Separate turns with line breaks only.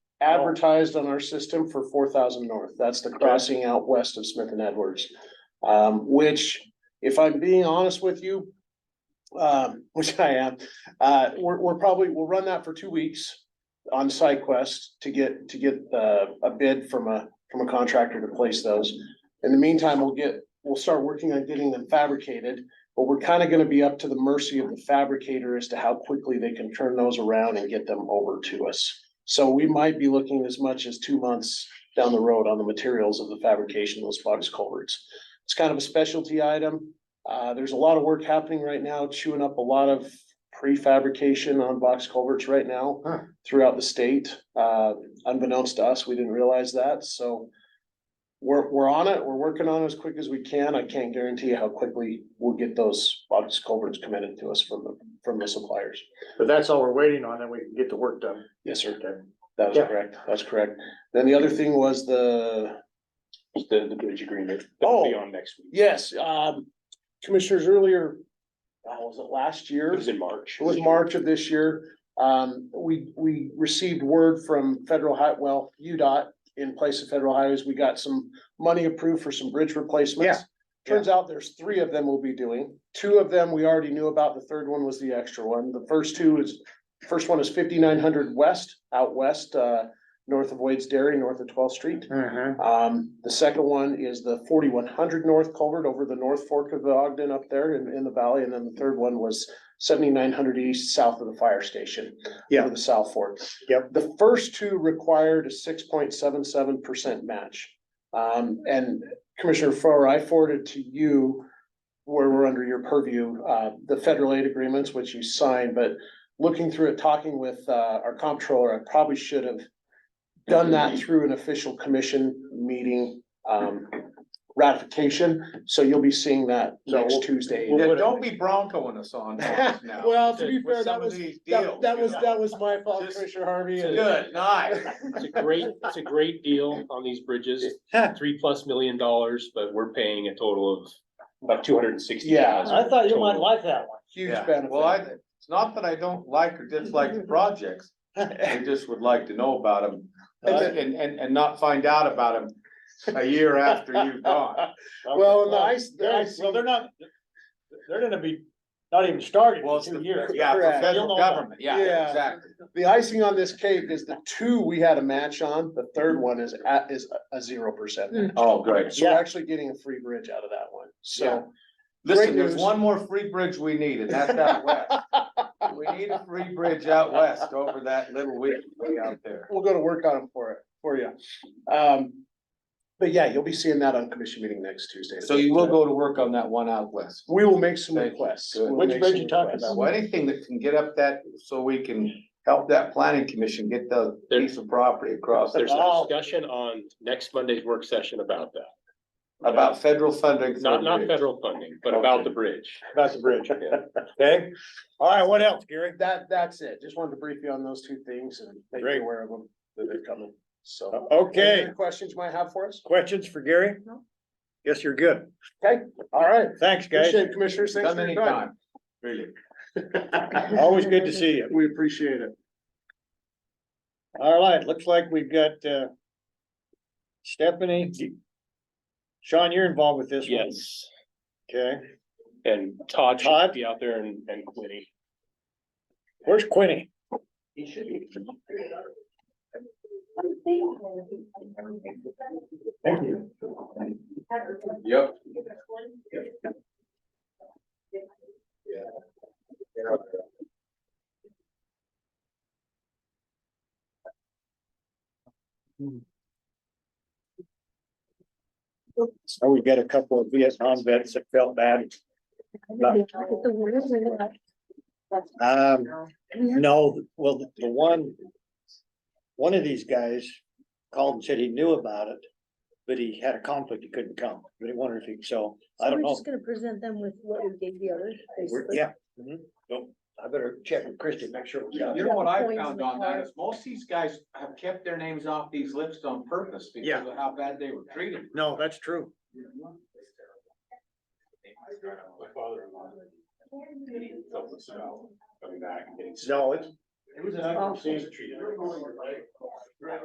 advertised on our system for four thousand north. That's the crossing out west of Smith and Edwards. Um, which, if I'm being honest with you, um, which I am, uh, we're, we're probably, we'll run that for two weeks on SideQuest to get, to get, uh, a bid from a, from a contractor to place those. In the meantime, we'll get, we'll start working on getting them fabricated, but we're kind of gonna be up to the mercy of the fabricator as to how quickly they can turn those around and get them over to us. So we might be looking as much as two months down the road on the materials of the fabrication of those box culverts. It's kind of a specialty item. Uh, there's a lot of work happening right now, chewing up a lot of prefabrication on box culverts right now
Huh.
throughout the state. Uh, unbeknownst to us, we didn't realize that, so we're, we're on it. We're working on it as quick as we can. I can't guarantee how quickly we'll get those box culverts committed to us from the, from the suppliers.
But that's all we're waiting on, then we can get the work done.
Yes, sir.
Okay.
That was
Yeah.
correct, that's correct. Then the other thing was the,
The, the bridge agreement. that'll be
Oh.
On next week.
yes, um, commissioners earlier, uh, was it last year?
It was in March.
It was March of this year. Um, we, we received word from federal high, well, UDOT in place of federal highways. We got some money approved for some bridge replacements. Turns out there's three of them we'll be doing. Two of them we already knew about. The third one was the extra one. The first two is, first one is fifty-nine hundred west, out west, uh, north of Wade's Dairy, north of twelfth street.
Uh-huh.
Um, the second one is the forty-one hundred north culvert over the north fork of the Ogden up there in, in the valley, and then the third one was seventy-nine hundred east south of the fire station.
Yeah.
over The south fork.
Yep.
The first two required a six point seven seven percent match. Um, and Commissioner Farrar, I forwarded to you where we're under your purview, uh, the federal aid agreements, which you signed, but looking through it, talking with, uh, our comptroller, I probably should have done
Mm-hmm.
that through an official commission meeting, um, ratification. So you'll be seeing that
So
next
we'll-
Tuesday.
we'll-
Yeah, don't be broncoing us on this now.
Well, to be
With
fair,
some
that
of
was,
these
that,
deals,
that
you
was,
know.
that was my fault,
Just-
Commissioner Harvey. and-
Good, nice.
It's a great, it's a great deal on these bridges, three plus million dollars, but we're paying a total of about two hundred and sixty thousand.
I thought you might like that one.
Huge
Yeah.
benefit.
Well, I, it's not that I don't like or dislike the projects, I just would like to know about them.
And
And, and, and not find out about them a year after you've gone.
Well, and the ice, the ice.
Well, they're not, they're gonna be, not even started
Well,
in
it's
two
the,
years.
yeah, for
Correct.
You'll know
federal
more.
government, yeah,
Yeah.
exactly.
The icing on this cake is the two we had a match on, the third one is at, is a- a zero percent.
Oh, great.
So we're
Yeah.
actually getting a free bridge out of that one,
Yeah.
so.
Listen, there's
news.
one more free bridge we need, and that's out west. We need a free bridge out west over that little way way out there.
We'll go to work on them for it, for you. Um, but yeah, you'll be seeing that on commission meeting next Tuesday.
So you will go to work on that one out west.
We will make some
Thank you.
requests.
Good.
We'll
Which
make
bridge
some
you talking
requests.
Well, anything that can get up that, so we can help that planning commission get the piece of property across
There's
there's
a discussion on next Monday's work session about that,
about federal funding. for
not, not
bridge.
federal funding, but about
Okay.
the bridge.
That's the bridge, okay? All right, what else, Gary?
That, that's it. Just wanted to brief you on those two things and make
Great.
you aware of them, that they're coming, so. Any
Okay,
other Questions you might have for us?
questions for Gary? Guess you're good.
All right.
Thanks, guys.
Appreciate it, commissioners. Thanks
Come
for your time.
anytime, really.
Always good to see you.
We appreciate it.
All right, looks like we've got, uh, Stephanie. you- Sean, you're involved with this one.
Yes,
Okay,
and Todd should
Todd?
be out there and, and Quinny.
where's Quinny?
He should be.
Thank you.
Yep.
So Oh, we've got a couple of Vietnam vets that felt bad. Um, no, well, the the one, one of these guys called and said he knew about it, but he had a conflict, he couldn't come, but he wondered if he, so, I don't know.
We're just gonna present them with what we gave the others.
We're-
basically.
Yeah. mhm. So I better check with Christian, make sure. we got
You
it.
know what I
Coins in
found
the
on that
car.
is most of these guys have kept their names off these lists on purpose
Yeah.
because of how bad they were treated.
No, that's true.
My father-in-law. He helped us out, coming back and getting.
No, it's,
It was an
awful.
treated.